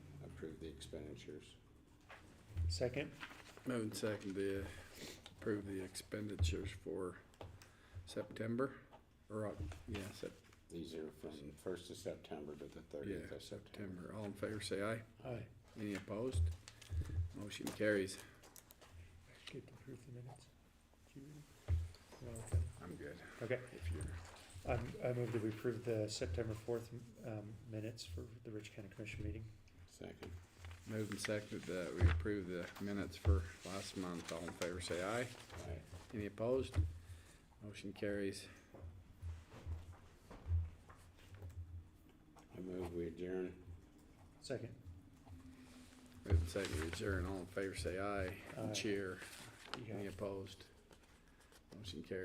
expenditures. Second, Moving second to approve the expenditures for September, or, Oc- yeah, Sep- These are from first of September to the yeah, thirtieth of September. September. All in favor, say aye. aye. Any opposed? Motion carries. Get to approve the minutes. Did you read it? No, okay. I'm good. Okay, If you're, I'm, I move that we approve the September fourth, um, minutes for the Rich County Commission meeting. Second, moving second that we approve the minutes for last month. All in favor, say aye. aye. Any opposed? Motion carries. I move we adjourn. Second, Moving second to adjourn. All in favor, say aye. Aye. Cheer. you got it. Any opposed? Motion carries.